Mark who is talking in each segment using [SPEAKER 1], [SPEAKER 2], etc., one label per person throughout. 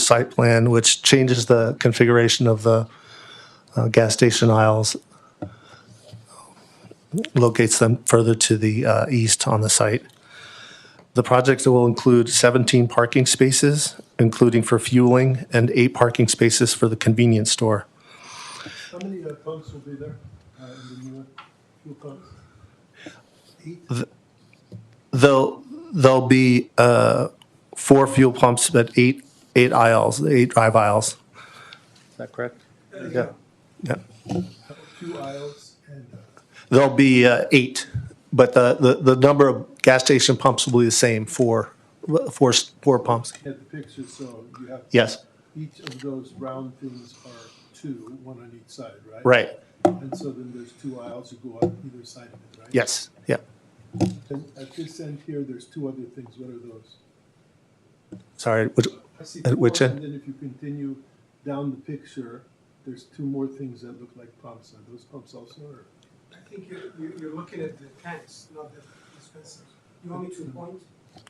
[SPEAKER 1] site plan, which changes the configuration of the uh, gas station aisles, locates them further to the uh, east on the site. The project will include 17 parking spaces, including for fueling, and eight parking spaces for the convenience store.
[SPEAKER 2] How many uh, pumps will be there uh, in the new one? fuel pumps? Eight?
[SPEAKER 1] There'll, there'll be uh, four fuel pumps, but eight, eight aisles, eight drive aisles. Is that correct? Yeah. Yeah.
[SPEAKER 2] Two aisles and uh,
[SPEAKER 1] There'll be uh, eight, but the, the, the number of gas station pumps will be the same, four, four, four pumps.
[SPEAKER 2] had the picture, so you have.
[SPEAKER 1] Yes,
[SPEAKER 2] Each of those round things are two, one on each side, right?
[SPEAKER 1] right,
[SPEAKER 2] And so then there's two aisles that go on either side of it, right?
[SPEAKER 1] yes, yeah.
[SPEAKER 2] And at this end here, there's two other things. What are those?
[SPEAKER 1] Sorry, which,
[SPEAKER 2] I see
[SPEAKER 1] At
[SPEAKER 2] four,
[SPEAKER 1] which end?
[SPEAKER 2] And then if you continue down the picture, there's two more things that look like pumps. Are those pumps also or?
[SPEAKER 3] I think you're, you're- you're looking at the tanks, not the dispensers. You want me to point?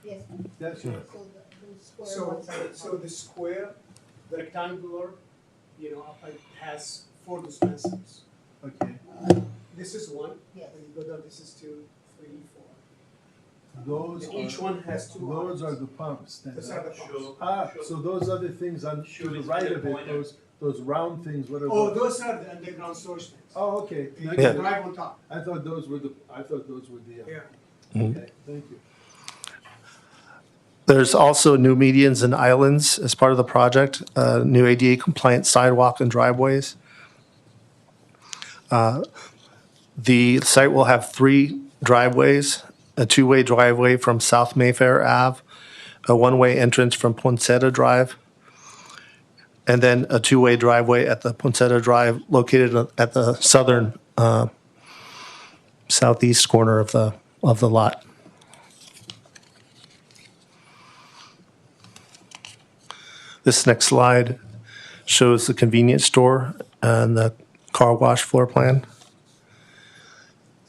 [SPEAKER 4] Yes,
[SPEAKER 2] That's right.
[SPEAKER 4] so the- the square
[SPEAKER 3] So,
[SPEAKER 4] ones are the
[SPEAKER 3] so
[SPEAKER 4] top.
[SPEAKER 3] the square rectangular, you know, upright has four dispensers.
[SPEAKER 2] Okay.
[SPEAKER 3] This is one,
[SPEAKER 4] Yes.
[SPEAKER 3] and you go down, this is two, three, four.
[SPEAKER 2] Those
[SPEAKER 3] And each
[SPEAKER 2] are,
[SPEAKER 3] one has two
[SPEAKER 2] those are
[SPEAKER 3] arms.
[SPEAKER 2] the pumps. then,
[SPEAKER 3] Those
[SPEAKER 2] right?
[SPEAKER 3] are the pumps.
[SPEAKER 2] Ah, so those other things on to the right of it, those, those round things, what are
[SPEAKER 3] Oh,
[SPEAKER 2] those?
[SPEAKER 3] those are the underground storage tanks.
[SPEAKER 2] Oh, okay.
[SPEAKER 3] You
[SPEAKER 2] Thank
[SPEAKER 1] Yeah.
[SPEAKER 3] can
[SPEAKER 2] you.
[SPEAKER 3] drive on top,
[SPEAKER 2] I thought those were the, I thought those were the, uh,
[SPEAKER 3] yeah.
[SPEAKER 2] okay, thank you.
[SPEAKER 1] There's also new medians and islands as part of the project, uh, new ADA compliant sidewalk and driveways. Uh, The site will have three driveways, a two-way driveway from South Mayfair Ave, a one-way entrance from Poncetta Drive, and then a two-way driveway at the Poncetta Drive located at the southern, uh, southeast corner of the, of the lot. This next slide shows the convenience store and the car wash floor plan.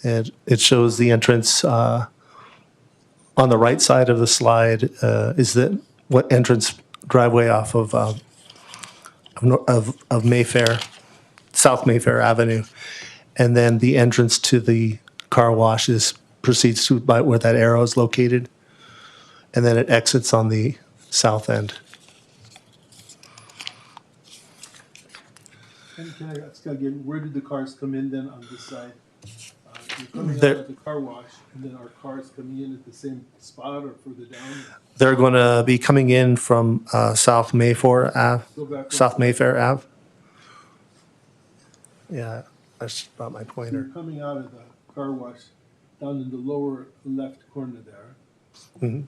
[SPEAKER 1] And it shows the entrance, uh, on the right side of the slide, uh, is the, what entrance driveway off of, uh, of Nor- of, of Mayfair, South Mayfair Avenue. And then the entrance to the car wash is, proceeds to by where that arrow is located. And then it exits on the south end.
[SPEAKER 2] And can I ask again, where did the cars come in then on this side? Uh, You're coming out
[SPEAKER 1] There-
[SPEAKER 2] at the car wash, and then are cars coming in at the same spot or further down?
[SPEAKER 1] They're going to be coming in from uh, South Mayfair Ave,
[SPEAKER 2] Go back.
[SPEAKER 1] South Mayfair Ave. Yeah, that's about my
[SPEAKER 2] You're
[SPEAKER 1] pointer.
[SPEAKER 2] coming out of the car wash down in the lower left corner there.
[SPEAKER 1] Mhm.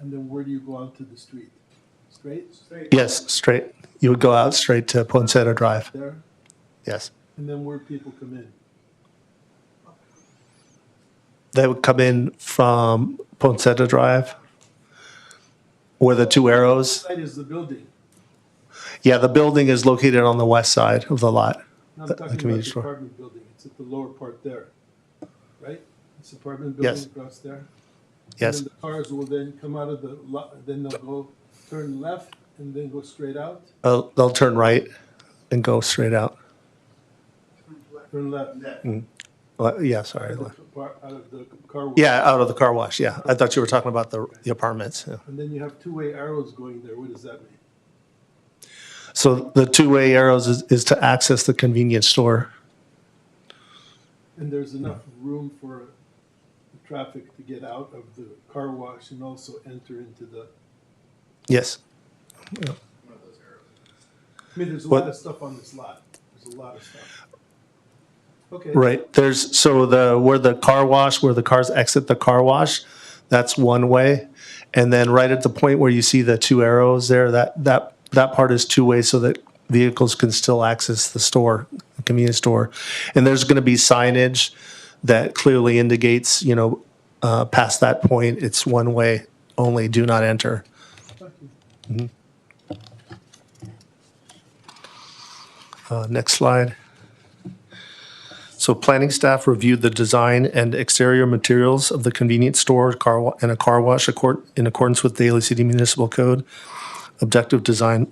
[SPEAKER 2] And then where do you go out to the street? Straight?
[SPEAKER 3] Straight.
[SPEAKER 1] Yes, straight. You would go out straight to Poncetta Drive.
[SPEAKER 2] There?
[SPEAKER 1] Yes.
[SPEAKER 2] And then where people come in?
[SPEAKER 1] They would come in from Poncetta Drive where the two arrows.
[SPEAKER 2] Side is the building.
[SPEAKER 1] Yeah, the building is located on the west side of the lot.
[SPEAKER 2] No, I'm
[SPEAKER 1] The- the
[SPEAKER 2] talking about
[SPEAKER 1] community
[SPEAKER 2] the
[SPEAKER 1] store.
[SPEAKER 2] apartment building. It's at the lower part there, right? It's apartment
[SPEAKER 1] Yes.
[SPEAKER 2] building across there.
[SPEAKER 1] Yes.
[SPEAKER 2] And then the cars will then come out of the lot, then they'll go turn left and then go straight out,
[SPEAKER 1] Uh, they'll turn right and go straight out.
[SPEAKER 2] turn left.
[SPEAKER 1] Mm-hmm. Le- Uh, Yeah, sorry.
[SPEAKER 2] Out
[SPEAKER 1] le-
[SPEAKER 2] of the par- out of the car wash.
[SPEAKER 1] Yeah, out of the car wash. Yeah. I thought you were talking about the, the apartments. Yeah.
[SPEAKER 2] And then you have two-way arrows going there. What does that mean?
[SPEAKER 1] So the two-way arrows is, is to access the convenience store.
[SPEAKER 2] And there's enough room for the traffic to get out of the car wash and also enter into the,
[SPEAKER 1] Yes.
[SPEAKER 2] I mean, there's a
[SPEAKER 1] What-
[SPEAKER 2] lot of stuff on this lot. There's a lot of stuff. Okay.
[SPEAKER 1] Right. There's, so the, where the car wash, where the cars exit the car wash, that's one way. And then right at the point where you see the two arrows there, that, that, that part is two way so that vehicles can still access the store, the convenience store. And there's going to be signage that clearly indicates, you know, uh, past that point, it's one way only, do not enter. Mm-hmm. Uh, Next slide. So planning staff reviewed the design and exterior materials of the convenience store car wa- and a car wash accord- in accordance with Daly City Municipal Code. Objective design